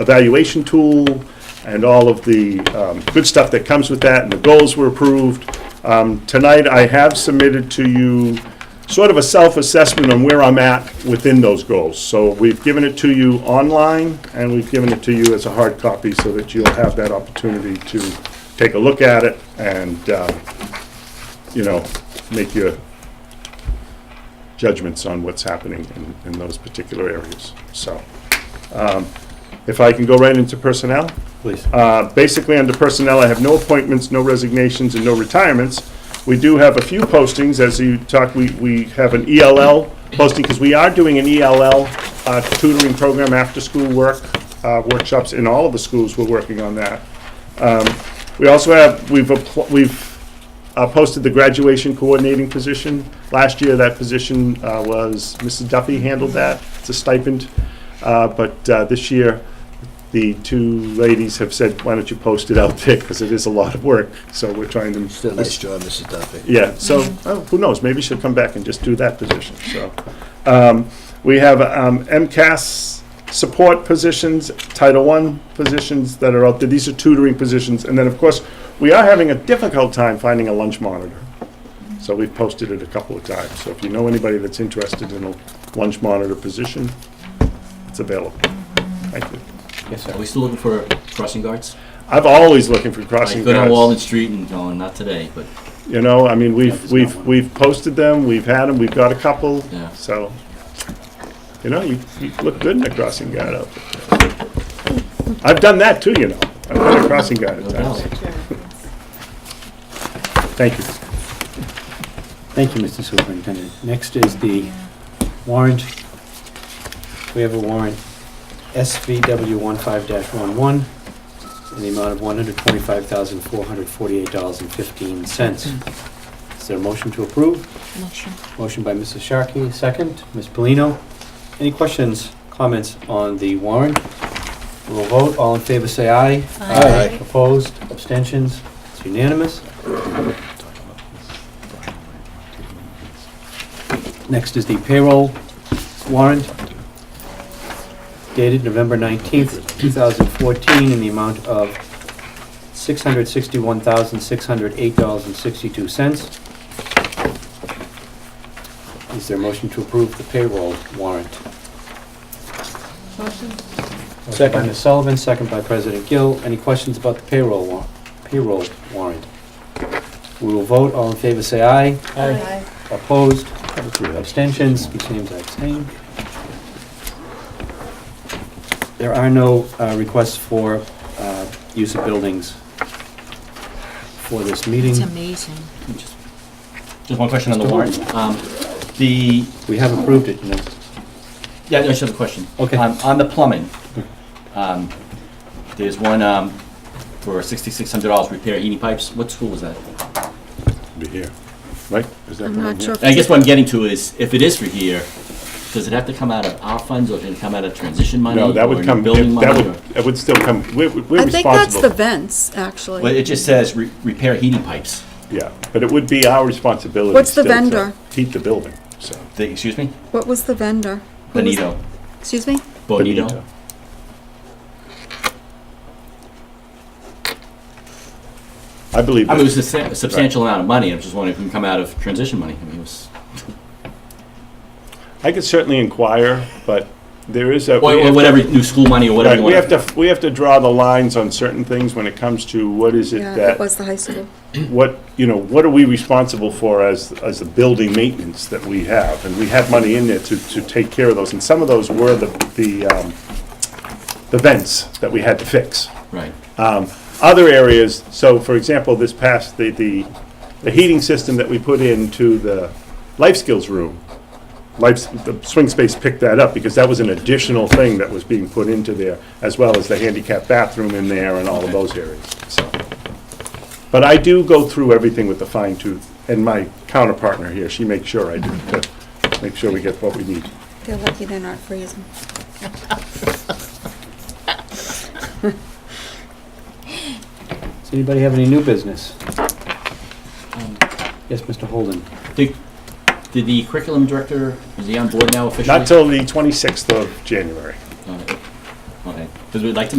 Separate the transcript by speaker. Speaker 1: evaluation tool and all of the um, good stuff that comes with that, and the goals were approved. Um, Tonight, I have submitted to you sort of a self-assessment on where I'm at within those goals. So we've given it to you online, and we've given it to you as a hard copy so that you'll have that opportunity to take a look at it and, uh, you know, make your judgments on what's happening in, in those particular areas. So, um, if I can go right into personnel?
Speaker 2: Please.
Speaker 1: Uh, Basically, under personnel, I have no appointments, no resignations, and no retirements. We do have a few postings, as you talked, we, we have an ELL posting, because we are doing an ELL uh, tutoring program, after-school work, uh, workshops in all of the schools, we're working on that. Um, We also have, we've, appl- we've uh, posted the graduation coordinating position. Last year, that position uh, was, Mrs. Duffy handled that, it's a stipend. Uh, But uh, this year, the two ladies have said, why don't you post it out there, because it is a lot of work, so we're trying to.
Speaker 3: Did a nice job, Mrs. Duffy.
Speaker 1: Yeah, so, oh, who knows, maybe she'll come back and just do that position, so. Um, We have um, MCAS support positions, Title I positions that are out there, these are tutoring positions, and then, of course, we are having a difficult time finding a lunch monitor. So we've posted it a couple of times, so if you know anybody that's interested in a lunch monitor position, it's available. Thank you.
Speaker 2: Yes,
Speaker 4: Are
Speaker 2: sir.
Speaker 4: we still looking for crossing guards?
Speaker 1: I've always looking for crossing
Speaker 4: Like, good on
Speaker 1: guards.
Speaker 4: Walden Street and going, not today, but
Speaker 1: You know, I mean, we've,
Speaker 2: there's
Speaker 1: we've,
Speaker 2: not one.
Speaker 1: we've posted them, we've had them, we've got a couple,
Speaker 4: Yeah.
Speaker 1: so, you know, you, you look good in a crossing guard outfit. I've done that too, you know, I've been a crossing guard
Speaker 4: no
Speaker 1: at times,
Speaker 4: doubt.
Speaker 1: thank you.
Speaker 2: Thank you, Mr. Superintendent. Next is the warrant. We have a warrant, SVW 15-11, in the amount of $125,448.15. Is there a motion to approve?
Speaker 5: Motion.
Speaker 2: Motion by Mrs. Sharkey, second. Ms. Polino, any questions, comments on the warrant? We'll vote. All in favor, say aye.
Speaker 5: Aye.
Speaker 2: Opposed, abstentions, it's unanimous. Next is the payroll warrant dated November 19th, 2014, in the amount of $661,608.62. Is there a motion to approve the payroll warrant?
Speaker 5: Motion.
Speaker 2: Second by Ms. Sullivan, second by President Gill. Any questions about the payroll wa, payroll warrant? We will vote. All in favor, say aye.
Speaker 5: Aye.
Speaker 2: Opposed? Abstentions? Each name's abstained. There are no uh, requests for uh, use of buildings for this meeting.
Speaker 5: It's amazing.
Speaker 4: Just one question on the
Speaker 2: Mr.
Speaker 4: warrant. Um, The,
Speaker 2: We have approved it, no?
Speaker 4: yeah, I just have a question.
Speaker 2: Okay.
Speaker 4: Um, On the plumbing, um, there's one um, for $6,600 repair heating pipes. What school was that?
Speaker 1: Be here. Right? Is that
Speaker 5: I'm
Speaker 1: the one
Speaker 5: not
Speaker 1: here?
Speaker 5: sure.
Speaker 4: I guess what I'm getting to is, if it is for here, does it have to come out of our funds, or can it come out of transition money?
Speaker 1: No, that
Speaker 4: or
Speaker 1: would come,
Speaker 4: Building
Speaker 1: that
Speaker 4: money? or-
Speaker 1: would, that would still come, we're, we're
Speaker 5: I think that's the
Speaker 1: responsible.
Speaker 5: vents,
Speaker 4: Well,
Speaker 5: actually.
Speaker 4: it just says re- repair heating pipes.
Speaker 1: Yeah, but it would be our responsibility.
Speaker 5: What's the
Speaker 1: still to
Speaker 5: vendor?
Speaker 1: Heat the building, so.
Speaker 4: The- Excuse me?
Speaker 5: What was the vendor? Who was-
Speaker 4: Bonito.
Speaker 5: Excuse me?
Speaker 4: Bonito.
Speaker 1: I believe.
Speaker 4: I mean, it
Speaker 1: that-
Speaker 4: was a sa- substantial amount of money. I'm just wondering if it can come out of transition money. I mean, it was.
Speaker 1: I could certainly inquire, but there is a.
Speaker 4: Or,
Speaker 1: we
Speaker 4: or
Speaker 1: have to-
Speaker 4: whatever, new school money or whatever
Speaker 1: Right,
Speaker 4: you
Speaker 1: we
Speaker 4: want.
Speaker 1: have to, we have to draw the lines on certain things when it comes to what is it
Speaker 5: Yeah, it
Speaker 1: that,
Speaker 5: was the high school.
Speaker 1: what, you know, what are we responsible for as, as the building maintenance that we have? And we have money in there to, to take care of those, and some of those were the, the, um, the vents that we had to fix.
Speaker 4: Right.
Speaker 1: Um, Other areas, so for example, this past, the, the, the heating system that we put into the life skills room, life, the swing space picked that up because that was an additional thing that was being put into there, as well as the handicap bathroom in there and all of
Speaker 4: Okay.
Speaker 1: those areas, so. But I do go through everything with a fine tooth, and my counterpartner here, she makes sure I do, to make sure we get what we need.
Speaker 5: They're lucky they're not freezing.
Speaker 2: Does anybody have any new business? Yes, Mr. Holden.
Speaker 4: Did, did the curriculum director, is he on board now officially?
Speaker 1: Not till the twenty-sixth of January.
Speaker 4: Uh, Okay. Because we'd like to